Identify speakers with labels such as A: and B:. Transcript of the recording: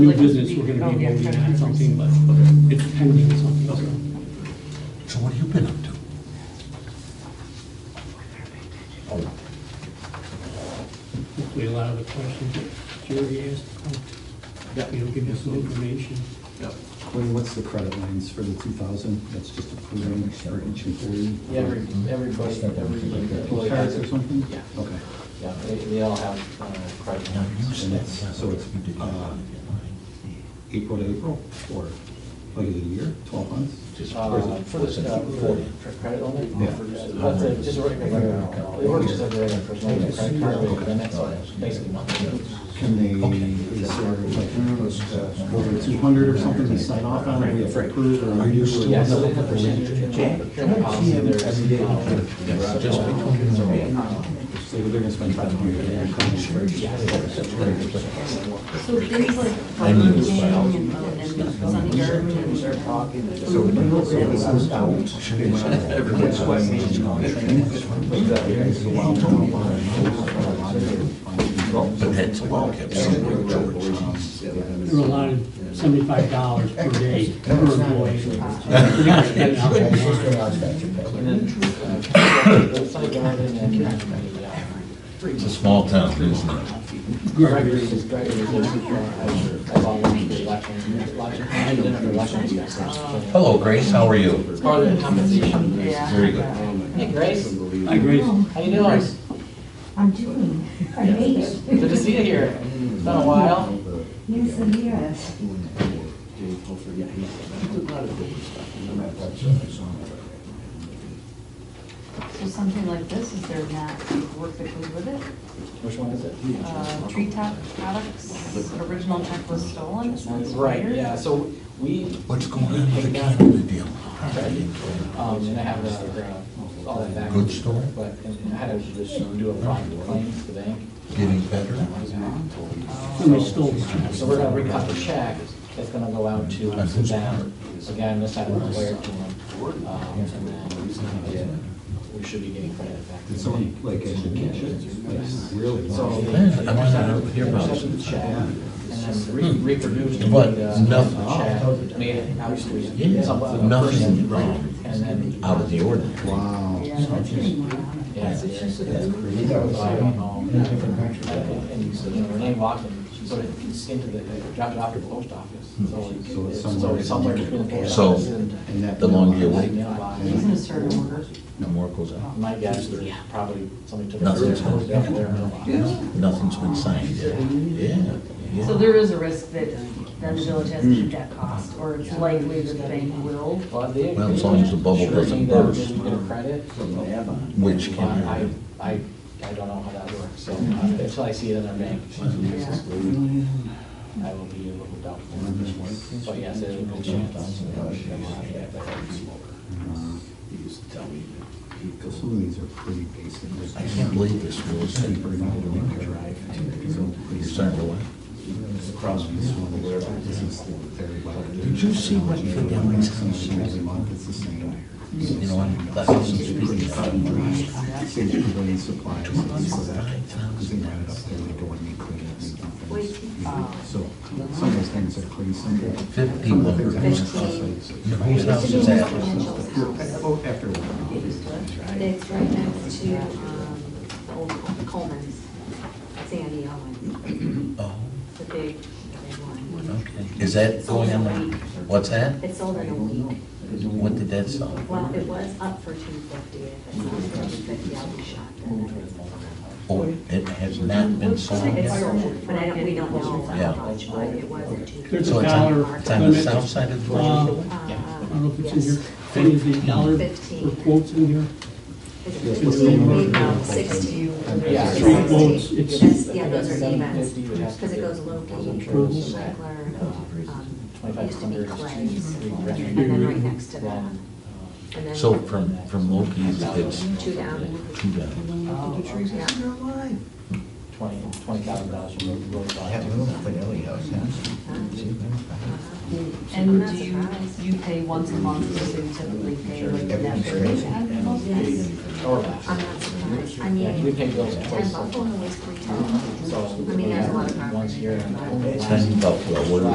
A: New business, we're gonna
B: Oh,
A: be voting on something, but it's pending something, so.
C: So what have you been up to? Oh,
A: Hopefully a lot of the questions that Jerry asked,
D: Yeah.
A: you know, give us some information.
D: Yep.
E: Clay, what's the credit lines for the 2,000? That's just approving for each employee?
D: Every, everybody, every employee
E: Cards
D: has
E: or
D: it.
E: something?
D: Yeah.
E: Okay.
D: Yeah, they, they all have, uh, credit
C: Now, you
D: cards.
C: said
E: that's- so it's,
C: you did not
E: uh,
C: want to get mine.
E: April to April, or like a year, 12 months?
C: Just-
D: Uh,
E: Or is it-
D: For the, uh, for the for credit limit?
E: Yeah.
D: That's a, just a regular, it works just like a regular personal credit card, but then that's all, basically monthly.
E: Can they,
C: Okay.
E: is there like over 200 or something they sign off on, or we have to approve, or?
C: Are you still-
D: Yeah, so they have percentage in the procurement policy, Uh, there's. uh,
C: Yes, just between the
E: So they're gonna spend 500.
F: So things like Burger King and and Sunny Garden and talking.
G: So when you look at this as out,
C: Everyone's But that's a well kept secret, George.
A: There were a lot of seventy-five dollars per day per employee. So we gotta spend it out of the line.
D: And then, uh, the Sunny Garden and, uh,
C: It's a small town, isn't it?
D: Gregory's is Gregory's. That's all the election, election, and then after election, yes.
C: Hello, Grace, how are you?
D: Part of the compensation.
F: Yeah.
C: Very good.
D: Hey, Grace,
A: I agree.
D: how you doing?
G: I'm doing, I made it.
D: Good to see you here. It's been a while.
G: Yes, it is.
F: So something like this, is there not work that goes with it?
D: Which one is it?
F: Uh, Treetop Products, original check was stolen, sounds
D: Right,
F: weird.
D: yeah, so we,
C: What's going on with the Canada deal?
D: um, and I have the, the- all that back.
C: Good story.
D: But and I had to just do a fraud claim to the bank.
C: Getting better?
A: Somebody stole it.
D: So we're gonna recut the check that's gonna go out to them. Again, this I don't know where to them. Um, and then we should be getting credit back. to
E: Did
D: the
E: someone
D: bank.
E: like actually catch it? Like, really?
D: So they
C: Man, I might not
D: intercepted
C: hear about
D: intercepted the
C: this.
D: check and then re-
C: Hmm.
D: reproduced the
C: But
D: uh,
C: nothing.
D: the check, made it out
C: Yeah,
D: to some other
C: nothing
D: person,
C: wrong.
D: And then.
C: Out of the ordinary.
E: Wow.
F: Yeah, that's pretty wild.
D: Yeah, it's just, I don't know. And, and, you know, Renee walked and she sort of into the, dropped it off to the post office. Hmm. So it's-
E: So it's
D: it's
E: somewhere-
D: sort of somewhere between the post
C: So-
D: office and
E: And that-
C: The longer you
D: the
C: wait,
D: mailbox.
F: He's gonna start an order.
C: no more goes out.
D: My guess is probably somebody took it.
C: Nothing.
D: Put it out there in the mailbox.
C: Nothing's been signed yet. Yeah. yeah.
F: So there is a risk that then the village has to keep that cost, or it's likely that the bank will.
D: Well, they-
C: Well, as long as the bubble
D: Sure,
C: doesn't
D: they
C: burst.
D: didn't get a credit.
C: Which
D: But
C: can
D: I,
C: happen.
D: I, I don't know how that works, so uh, until I see it in our bank,
F: Yeah.
D: I will be a little doubtful. But yes, there's a good chance.
E: Some of these are pretty basic.
C: I can't believe this real estate. You're starting to laugh. Did
E: Did
C: you see what the Demings
E: Every month, it's the same.
C: You know, I'm, that doesn't speak.
E: Same pavilion supplies, it's for that, because they ran it up there, they go and they clean it, they dump things. you know. So, some of those things are pretty simple.
C: Fifty
E: Some of the
C: lumber.
E: things are just like-
C: Whose house is that?
E: Oh, after a while.
B: It's right next to um, old Coleman's, Sandy Owen,
C: Oh,
B: the big, big one.
C: okay. Is that going on? the- What's that?
B: It sold in a week.
C: What did that sell?
B: Well, it was up for two fifty, if it's not for two fifty, I'll be shocked.
C: Oh, it has not been sold
B: It's
C: yet?
B: sold, but I don't, we don't know
C: Yeah.
B: how much, but it wasn't two fifty. Uh,
A: There's
C: So it's on, it's on the south side of the
B: Um,
C: village?
A: I don't know if it's in
B: Yes.
A: here. What is the dollar
B: Fifteen.
A: for quotes in here?
B: Is it fifteen, we found sixteen.
D: Yeah.
A: Three quotes, it's-
B: That's- Yeah, those are
D: Seven
B: events,
D: fifty would have to
B: because it
D: be-
B: goes Loki,
D: Approvals.
B: Schlegler, um,
D: Twenty-five
B: used to be
D: hundred is
B: Clay's,
D: three
B: and
D: grand.
B: then right next to that.
D: Then,
B: and then-
C: So from,
D: uh,
C: from Loki's, it's
B: Two down.
C: two down.
B: Oh, yeah.
D: uh, twenty, twenty thousand dollars from road- road bond.
F: And do you, you pay once a month, or do you typically pay like never?
D: Or less.
B: I'm not surprised, I mean,
D: We pay bills
B: and
D: twice.
B: Buffalo was pretty tough.
D: So
B: I mean, there's a lot of
D: once a year.
B: property.
D: and
C: Ten Buffalo, what do